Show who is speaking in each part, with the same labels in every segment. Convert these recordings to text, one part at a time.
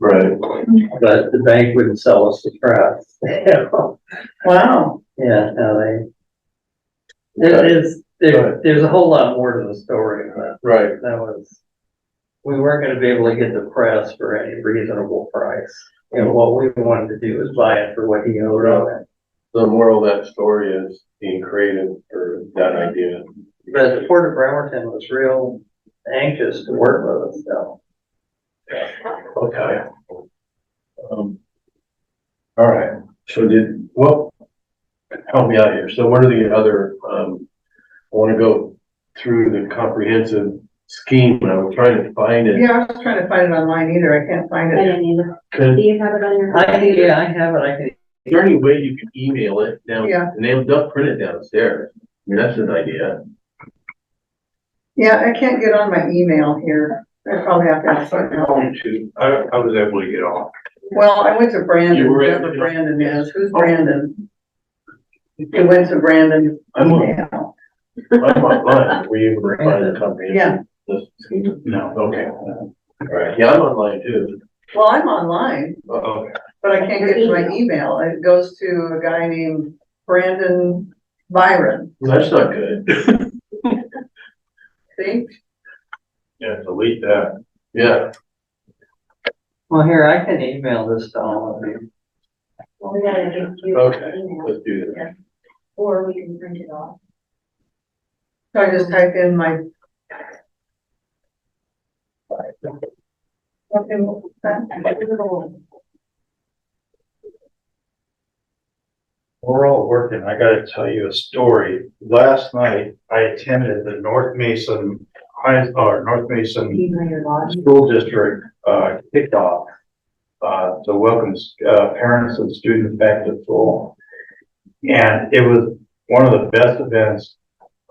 Speaker 1: Right. But the bank wouldn't sell us the press.
Speaker 2: Wow,
Speaker 1: Yeah, no, they. There is, there, there's a whole lot more to the story, but
Speaker 3: Right,
Speaker 1: that was. We weren't gonna be able to get the press for any reasonable price. And what we wanted to do was buy it for what he owed on it.
Speaker 3: the moral of that story is being creative for that idea.
Speaker 1: But the Port of Bremerton was real anxious to work with us, so.
Speaker 3: Okay. Um, All right, so did, well, help me out here. So what are the other, um, I want to go through the comprehensive scheme. and I'm trying to find it.
Speaker 2: yeah, I was trying to find it online either, I can't find
Speaker 4: I
Speaker 2: it.
Speaker 4: didn't either. Do
Speaker 3: Could-
Speaker 4: you have it on your?
Speaker 1: I, e, yeah, I have it, I can
Speaker 3: Is there any way you can email it down?
Speaker 2: Yeah.
Speaker 3: And they'll, they'll print it downstairs. I mean, that's an idea.
Speaker 2: Yeah, I can't get on my email here, I probably have to ask someone else.
Speaker 5: to, I, I was able to get on.
Speaker 2: Well, I went to Brandon,
Speaker 5: You were Oh. at-
Speaker 2: whoever Brandon is, who's Brandon? I went to Brandon.
Speaker 3: I'm on,
Speaker 2: email.
Speaker 3: I'm online. Were you able to find the comprehensive? scheme?
Speaker 5: No.
Speaker 3: Okay. All right, yeah, I'm online too.
Speaker 2: Well, I'm online,
Speaker 3: Okay.
Speaker 2: but I can't get to my email, it goes to a guy named Brandon Byron,
Speaker 3: That's not good.
Speaker 2: see?
Speaker 5: Yeah, delete that.
Speaker 3: Yeah,
Speaker 1: Well, here, I can email this to all of you.
Speaker 4: Well, we gotta get you
Speaker 3: okay,
Speaker 4: an email,
Speaker 3: let's do that.
Speaker 4: or we can print it off.
Speaker 2: So I just type in my. Okay, what was that?
Speaker 5: We're all working. I gotta tell you a story. Last night, I attended the North Mason High, or North Mason
Speaker 4: Email your lodge.
Speaker 5: School District, uh, kicked off. Uh, to welcome, uh, parents and students back to school. And it was one of the best events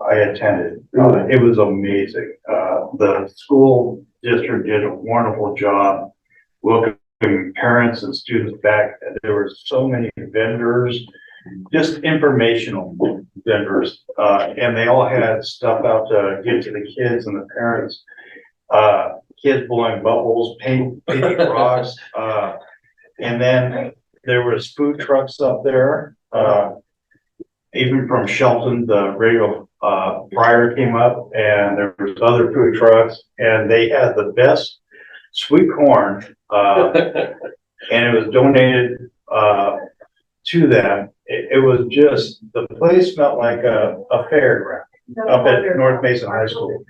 Speaker 5: I attended. Uh, It was amazing. Uh, the school district did a wonderful job welcoming parents and students back. There were so many vendors, just informational vendors. Uh, and they all had stuff out to give to the kids and the parents. Uh, kids blowing bubbles, paint, painting rocks, uh, and then there was food trucks up there, uh, even from Shelton, the radio, uh, prior came up and there was other food trucks and they had the best sweet corn, uh, and it was donated, uh, to them. It, it was just, the place smelled like a, a fairground up at North Mason High School.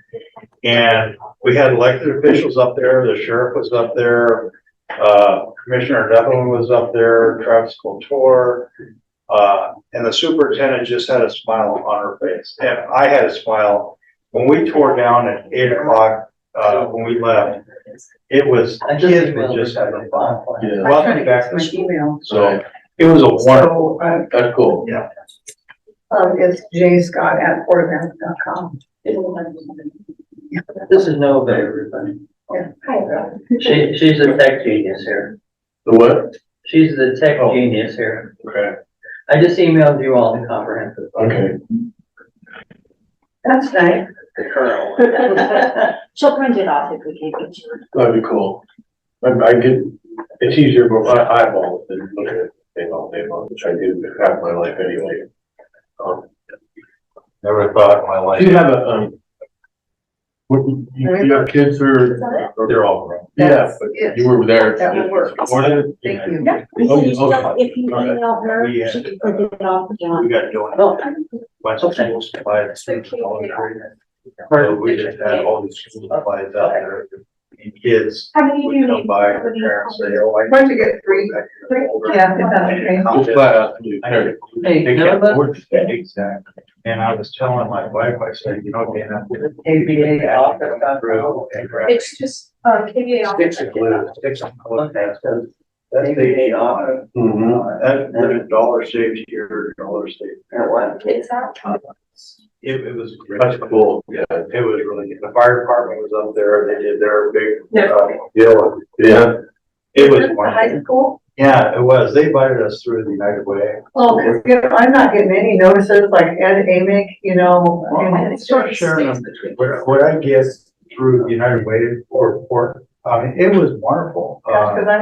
Speaker 5: And we had elected officials up there, the sheriff was up there, uh, Commissioner Devlin was up there, Travis Couture. Uh, and the superintendent just had a smile on her face, and I had a smile. When we tore down at eight o'clock, uh, when we left, it was,
Speaker 1: I just
Speaker 5: kids
Speaker 1: emailed
Speaker 5: were just
Speaker 1: this to
Speaker 5: having
Speaker 1: the
Speaker 5: fun.
Speaker 1: file plan.
Speaker 3: Yeah,
Speaker 2: I'm trying to
Speaker 5: Welcome
Speaker 2: get
Speaker 5: back
Speaker 2: to
Speaker 5: to
Speaker 2: my
Speaker 5: school.
Speaker 2: email.
Speaker 3: so
Speaker 5: It was a wonderful,
Speaker 2: So, uh,
Speaker 3: that's cool.
Speaker 2: um, it's jscott@portofamerica.com.
Speaker 1: This is Nova, everybody.
Speaker 4: Hi, Rob.
Speaker 1: She, she's a tech genius here.
Speaker 3: The what?
Speaker 1: She's the tech
Speaker 3: Oh.
Speaker 1: genius here.
Speaker 3: Okay.
Speaker 1: I just emailed you all the comprehensive,
Speaker 3: Okay,
Speaker 2: That's nice.
Speaker 1: the curl.
Speaker 4: She'll print it off if we can't get you.
Speaker 3: that'd be cool. I, I get, it's easier, but I eyeball it than look at it thing all day long, which I do half my life anyway. Um,
Speaker 5: never thought in my life.
Speaker 3: Do you have a, um, what, you, you have kids who are?
Speaker 5: They're all grown.
Speaker 3: Yeah, but
Speaker 2: Yes.
Speaker 3: you were there.
Speaker 2: That will work.
Speaker 3: Supported?
Speaker 2: Thank you.
Speaker 4: Yeah,
Speaker 3: Oh, you-
Speaker 4: if you
Speaker 3: okay.
Speaker 4: if you email her,
Speaker 5: We, uh,
Speaker 4: she can print it off, for John.
Speaker 5: We got doing
Speaker 1: No,
Speaker 5: bunch of school supplies. So we just had all these school supplies out there and kids
Speaker 4: How many do you
Speaker 5: would come
Speaker 4: need?
Speaker 5: by, their parents say, oh, I.
Speaker 2: Why don't you get three?
Speaker 4: Yeah, if
Speaker 5: I
Speaker 4: that's
Speaker 5: need a
Speaker 3: Just
Speaker 5: copy.
Speaker 3: flat out, you there.
Speaker 1: Hey,
Speaker 5: They
Speaker 1: you know
Speaker 5: can't
Speaker 1: what?
Speaker 5: afford that, Exactly. And I was telling my wife, I said, you know, Dan.
Speaker 1: ABA office.
Speaker 5: office.
Speaker 4: just, uh, KBA.
Speaker 5: Sticks of glue, sticks of glue.
Speaker 1: Okay, so
Speaker 5: That's the,
Speaker 1: ABA office,
Speaker 3: Mm-hmm.
Speaker 5: that, that dollar saves here, dollar saves.
Speaker 1: that one.
Speaker 4: It's out.
Speaker 5: It, it was. great.
Speaker 3: That's cool, yeah,
Speaker 5: It was really, good. the fire department was up there, they did their big, uh, deal.
Speaker 3: yeah,
Speaker 5: It was
Speaker 2: Just the
Speaker 5: wonderful.
Speaker 2: High school?
Speaker 5: Yeah, it was. They invited us through the United Way.
Speaker 2: Well, it's good. I'm not getting any notices like Ed Amick, you know. and-
Speaker 5: Start sharing them. What, what I get through the United Way or, or, I mean, it was wonderful.
Speaker 2: Gosh,
Speaker 5: Uh,
Speaker 2: 'cause I